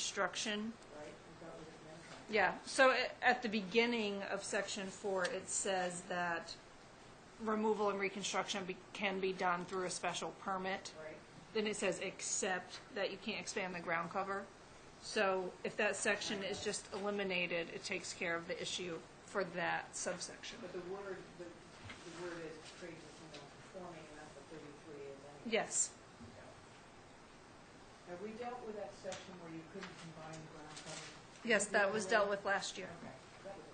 reconstruction. Yeah, so a- at the beginning of section four, it says that removal and reconstruction be- can be done through a special permit. Then it says, except that you can't expand the ground cover. So if that section is just eliminated, it takes care of the issue for that subsection. But the word, the, the word is pre-existing non-conforming, and that's what thirty-three is anyway. Yes, Have we dealt with that section where you couldn't combine ground cover? yes, that was dealt with last year. Okay, that was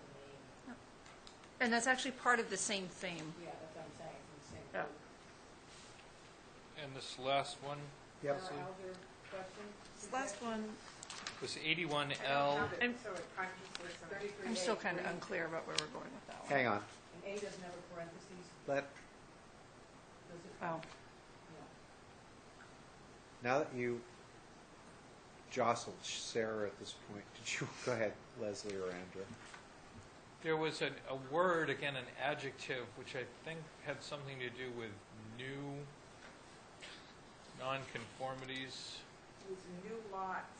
the main, And that's actually part of the same theme. yeah, that's what I'm saying, it's the same. Yeah. group. And this last one Yep. Now, Alger, question? This last one, was eighty-one L. I'm- So it- I'm just listening. I'm still kind of 33A, unclear about where we're going with that one. Hang on, And A doesn't have a parentheses, let, does it? Oh, No. now that you jostled Sarah at this point, did you, go ahead, Leslie or Andrew? There was an, a word, again, an adjective, which I think had something to do with new nonconformities, It was new lots.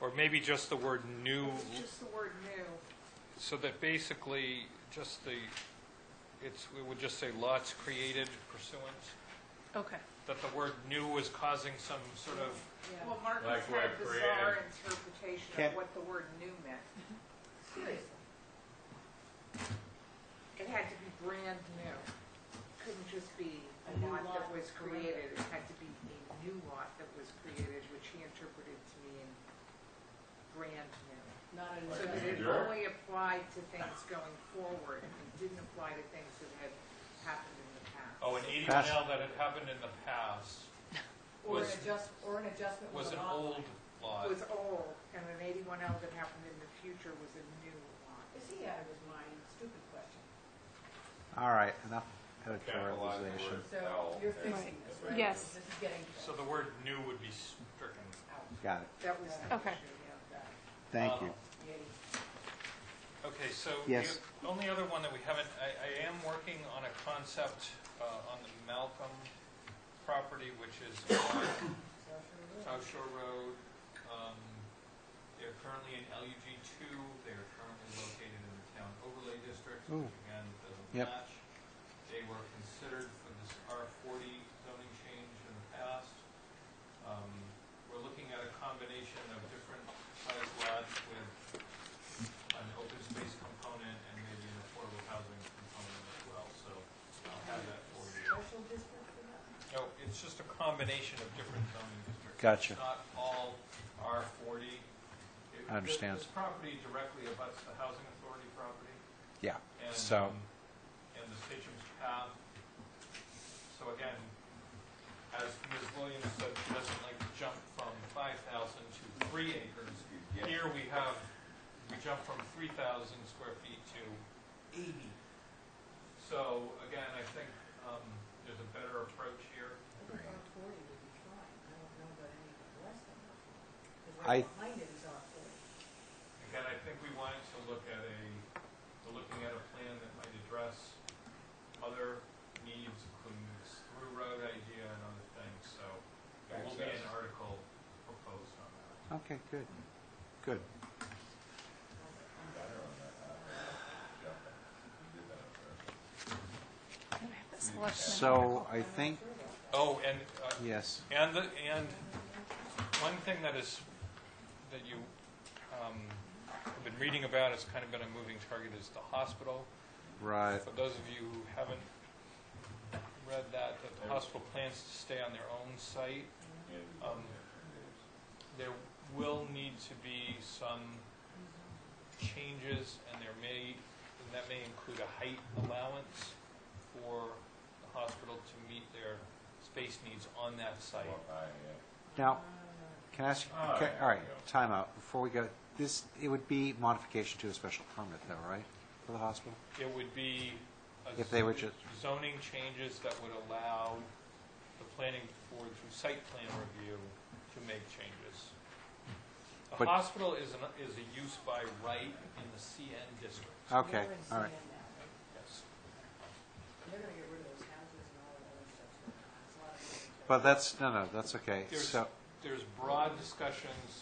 or maybe just the word new, Just the word new. so that basically just the, it's, we would just say lots created pursuant, Oh, okay. that the word new was causing some sort of, Yeah. Well, Marcus Like had a we're bizarre creative. interpretation Can't- of what the word new meant. Seriously. It had to be brand new. Couldn't just be a A new lot that lot was was created. It had to be a new lot that was created, which he interpreted to mean brand new. Not an So that adjustment. it Sure. only applied to things going forward. It didn't apply to things that had happened in the past. oh, an eighty-one L that had happened in the past Or an was- adjust, or an adjustment was with an an lot. old lot. Was old, and an eighty-one L that happened in the future was a new lot. Is he out of his mind? Stupid question. All right, enough Capitalize the editorialization. word So L. you're fixing Right. this, Yeah. right? Yes. This is getting So the word new would be stricken. out. Got it, That was the Okay. issue, yeah. thank you. Yay. Okay, so Yes. the only other one that we haven't, I, I am working on a concept uh, on the Malcolm property, which is on South Shore Road. Um, They're currently in LUG two, they are currently located in the town overlay district, Ooh. which again, doesn't Yep. match. They were considered for this R forty zoning change in the past. Um, We're looking at a combination of different size lots with an open space component and maybe an affordable housing component as well, so I'll have that for you. Special district for that? No, it's just a combination of different zoning districts. Gotcha. It's not all R forty. It- I understand. This this property directly abuts the housing authority property. Yeah, and, so, um, And the Stitchum's Path. So again, as Ms. Williams said, she doesn't like to jump from five thousand to three acres. Here we have, we jump from three thousand square feet to eighty. So again, I think, um, there's a better approach here. I think R forty would be fine. I don't know about anything less than R forty. Because I- right behind it is R forty. Again, I think we wanted to look at a, we're looking at a plan that might address other needs, including this through road idea and other things, so there will be an Access. article proposed on that. okay, good, good. I'm gonna have that selection. So I think, Oh, and, uh, yes, and, the- and one thing that is, that you, um, have been reading about, it's kind of been a moving target, is the hospital. right, For those of you who haven't read that, that the hospital plans to stay on their own site, um, there will need to be some changes, and there may, and that may include a height allowance for the hospital to meet their space needs on that site. now, can I ask, Oh, okay, yeah, all right, there you go. timeout, before we go, this, it would be modification to a special permit though, right, for the hospital? It would be a If they were z- just- zoning changes that would allow the planning board through site plan review to make changes. The But- hospital is an, is a use by right in the CN district. Okay, We're in all CN now, right, right? Yes. And They're gonna get rid of those houses and all that other stuff. so it's a lot of- but that's, no, no, that's okay, There's- so, there's broad discussions